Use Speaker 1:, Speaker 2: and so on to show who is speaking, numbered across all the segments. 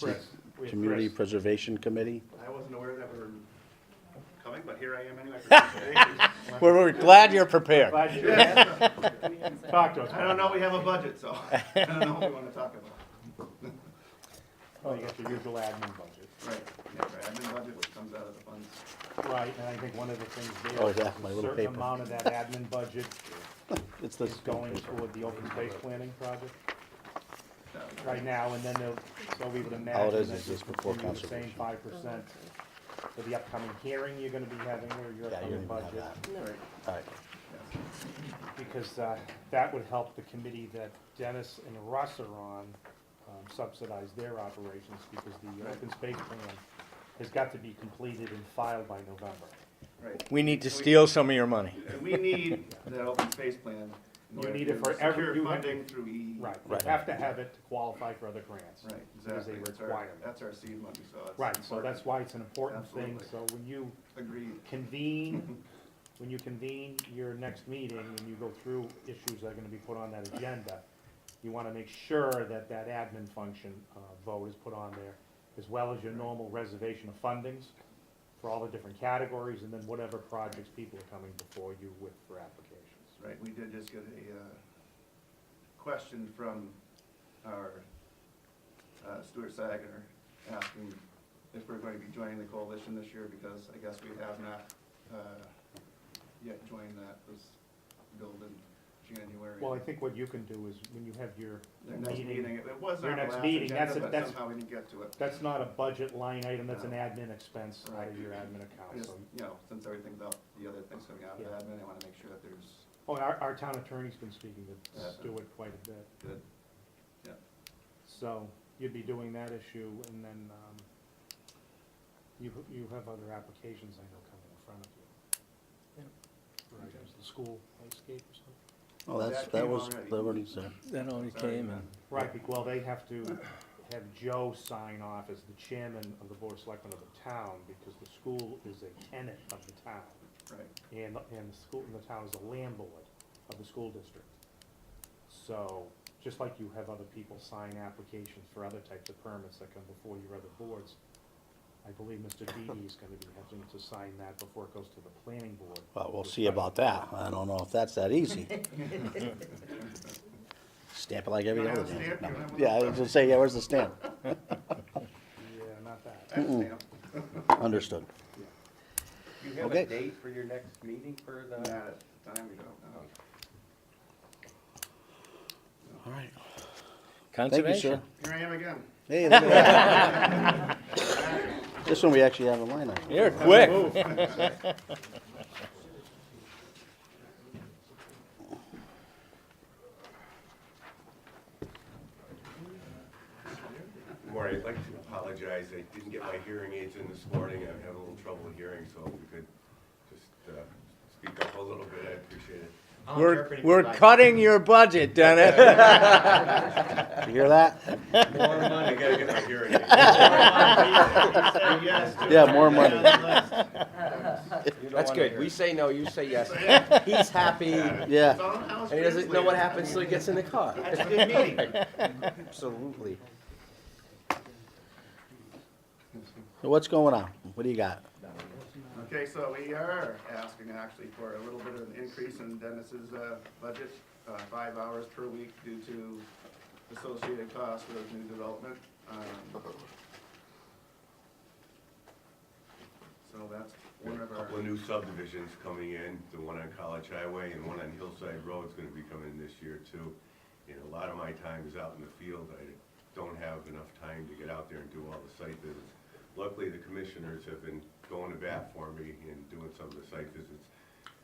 Speaker 1: Correct. We had
Speaker 2: Community
Speaker 1: Chris.
Speaker 2: Preservation Committee.
Speaker 1: I wasn't aware that we were coming, but here I am anyway. Thank you.
Speaker 2: We're, we're glad you're prepared.
Speaker 1: Glad you asked. Talk to us. I don't know, we have a budget, so I don't know what we want to talk about.
Speaker 2: Oh,
Speaker 3: Well, you have your usual admin budget.
Speaker 1: Right, yeah, right, admin budget, which comes out of the funds.
Speaker 3: Right, and I think one of the things
Speaker 2: Oh,
Speaker 3: there,
Speaker 2: yeah, my
Speaker 3: a
Speaker 2: little
Speaker 3: certain
Speaker 2: paper.
Speaker 3: amount of that admin budget
Speaker 2: It's this.
Speaker 3: is going toward the open space planning project
Speaker 1: That was-
Speaker 3: right now, and then they'll, so we would
Speaker 2: All it
Speaker 3: imagine
Speaker 2: is
Speaker 3: that
Speaker 2: is
Speaker 3: you
Speaker 2: just before
Speaker 3: continue the same
Speaker 2: conservation.
Speaker 3: five percent for the upcoming hearing you're gonna be having, or your
Speaker 2: Yeah, you don't
Speaker 3: upcoming
Speaker 2: even
Speaker 3: budget.
Speaker 2: have that.
Speaker 1: Right, Oh,
Speaker 2: All right.
Speaker 1: yeah.
Speaker 3: Because, uh, that would help the committee that Dennis and Russ are on um, subsidize their operations, because the
Speaker 1: Right.
Speaker 3: open space plan has got to be completed and filed by November.
Speaker 1: Right,
Speaker 4: We need to
Speaker 1: So we-
Speaker 4: steal some of your money.
Speaker 1: and we need that open space plan. in
Speaker 3: You
Speaker 1: order
Speaker 3: need
Speaker 1: to
Speaker 3: it for every-
Speaker 1: secure
Speaker 3: you have-
Speaker 1: Funding through E.
Speaker 3: Right, you
Speaker 2: Right.
Speaker 3: have to have it to qualify for other grants.
Speaker 1: Right,
Speaker 3: Because they
Speaker 1: exactly. That's our-
Speaker 3: require it.
Speaker 1: That's our seed money, so it's.
Speaker 3: Right, so
Speaker 1: important.
Speaker 3: that's why it's an important thing, so
Speaker 1: Absolutely.
Speaker 3: when you
Speaker 1: Agreed,
Speaker 3: convene, when you convene your next meeting and you go through issues that are gonna be put on that agenda, you wanna make sure that that admin function, uh, vote is put on there, as well as your normal reservation of fundings for all the different categories, and then whatever projects people are coming before you with for applications.
Speaker 1: right. We did just get a, uh, question from our, uh, Stuart Saginaw asking if we're going to be joining the coalition this year because I guess we have not, uh, yet joined that, was billed in January.
Speaker 3: Well, I think what you can do is, when you have your
Speaker 1: Their next meeting, it it was
Speaker 3: Your
Speaker 1: on the
Speaker 3: next
Speaker 1: last
Speaker 3: meeting, that's
Speaker 1: agenda,
Speaker 3: a-
Speaker 1: but
Speaker 3: that's-
Speaker 1: somehow we didn't get to it.
Speaker 3: That's not a budget line item, that's an
Speaker 1: No.
Speaker 3: admin expense out
Speaker 1: Right.
Speaker 3: of your admin
Speaker 1: I
Speaker 3: account,
Speaker 1: just,
Speaker 3: so.
Speaker 1: you know, since everything's up, the other things coming out of
Speaker 3: Yeah.
Speaker 1: admin, I wanna make sure that there's
Speaker 3: Oh, and our, our town attorney's been speaking to
Speaker 1: Yeah.
Speaker 3: Stuart quite a bit,
Speaker 1: good, yeah.
Speaker 3: so you'd be doing that issue, and then, um, you, you have other applications I know coming in front of you. For items, the school landscape or something.
Speaker 2: Well, that's,
Speaker 1: that
Speaker 2: that
Speaker 1: came
Speaker 2: was,
Speaker 1: already.
Speaker 2: that already said.
Speaker 4: That only
Speaker 1: Sorry,
Speaker 4: came
Speaker 1: Matt.
Speaker 4: in.
Speaker 3: Right, bec- well, they have to have Joe sign off as the chairman of the board of selectmen of the town, because the school is a tenant of the town.
Speaker 1: Right,
Speaker 3: and, and the school, and the town is a landlord of the school district. So, just like you have other people sign applications for other types of permits that come before your other boards, I believe Mr. Dede is gonna be having to sign that before it goes to the planning board.
Speaker 2: Well, we'll see about that. I don't know if that's that easy. Stamp it like every
Speaker 1: You don't
Speaker 2: other
Speaker 1: have a
Speaker 2: damn.
Speaker 1: stamp? You
Speaker 2: no.
Speaker 1: don't have
Speaker 2: Yeah, I
Speaker 1: one?
Speaker 2: was gonna say, yeah, where's the stamp?
Speaker 3: Yeah, not that.
Speaker 1: I understand.
Speaker 2: Understood.
Speaker 5: Do you have
Speaker 2: Okay.
Speaker 5: a date for your next meeting for
Speaker 1: Not
Speaker 5: the?
Speaker 1: at the time, we don't know.
Speaker 2: All right. Thank you, sir.
Speaker 4: Conservation.
Speaker 1: Here I am again.
Speaker 2: Hey, look at that. This one we actually have a line on.
Speaker 4: You're quick.
Speaker 6: Maury, I'd like to apologize, I didn't get my hearing aids in this morning, I'm having a little trouble hearing, so if we could just uh, speak up a little bit, I appreciate it.
Speaker 4: We're, we're cutting your budget, Dennis.
Speaker 2: You hear that?
Speaker 6: I gotta get my hearing aids.
Speaker 2: Yeah, more money.
Speaker 5: That's good. We say no, you say yes. He's happy, and
Speaker 2: Yeah,
Speaker 1: And
Speaker 5: he doesn't know what happens till he gets in the car.
Speaker 1: That's a good meeting.
Speaker 5: Absolutely.
Speaker 2: So what's going on? What do you got?
Speaker 1: Okay, so we are asking actually for a little bit of an increase in Dennis's uh, budget, uh, five hours per week due to associated costs with new development. Um, So that's one of
Speaker 6: A
Speaker 1: our,
Speaker 6: couple of new subdivisions coming in, the one on College Highway and one on Hillside Road's gonna be coming this year too. And a lot of my time is out in the field, I don't have enough time to get out there and do all the site visits. Luckily, the commissioners have been going to bat for me and doing some of the site visits.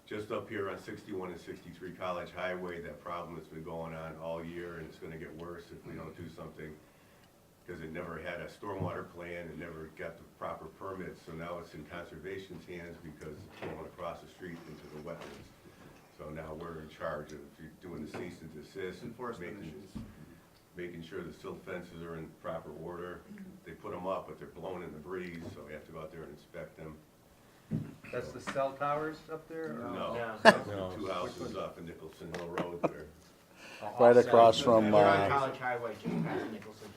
Speaker 6: Just up here on sixty-one and sixty-three College Highway, that problem has been going on all year and it's gonna get worse if we don't do something because it never had a stormwater plan and never got the proper permits, so now it's in conservation's hands because it's going across the street into the wetlands. So now we're in charge of doing the cease and desist. and
Speaker 1: Enforcement
Speaker 6: making-
Speaker 1: issues.
Speaker 6: Making sure the silt fences are in proper order.
Speaker 1: Mm-hmm.
Speaker 6: They put them up, but they're blown in the breeze, so we have to go out there and inspect them.
Speaker 5: That's the cell towers up
Speaker 1: uh,
Speaker 5: there?
Speaker 6: No, that's the two houses up in Nicholson Hill Road there.
Speaker 2: Right across from,
Speaker 7: They're on
Speaker 2: uh,
Speaker 7: College Highway, just past Nicholson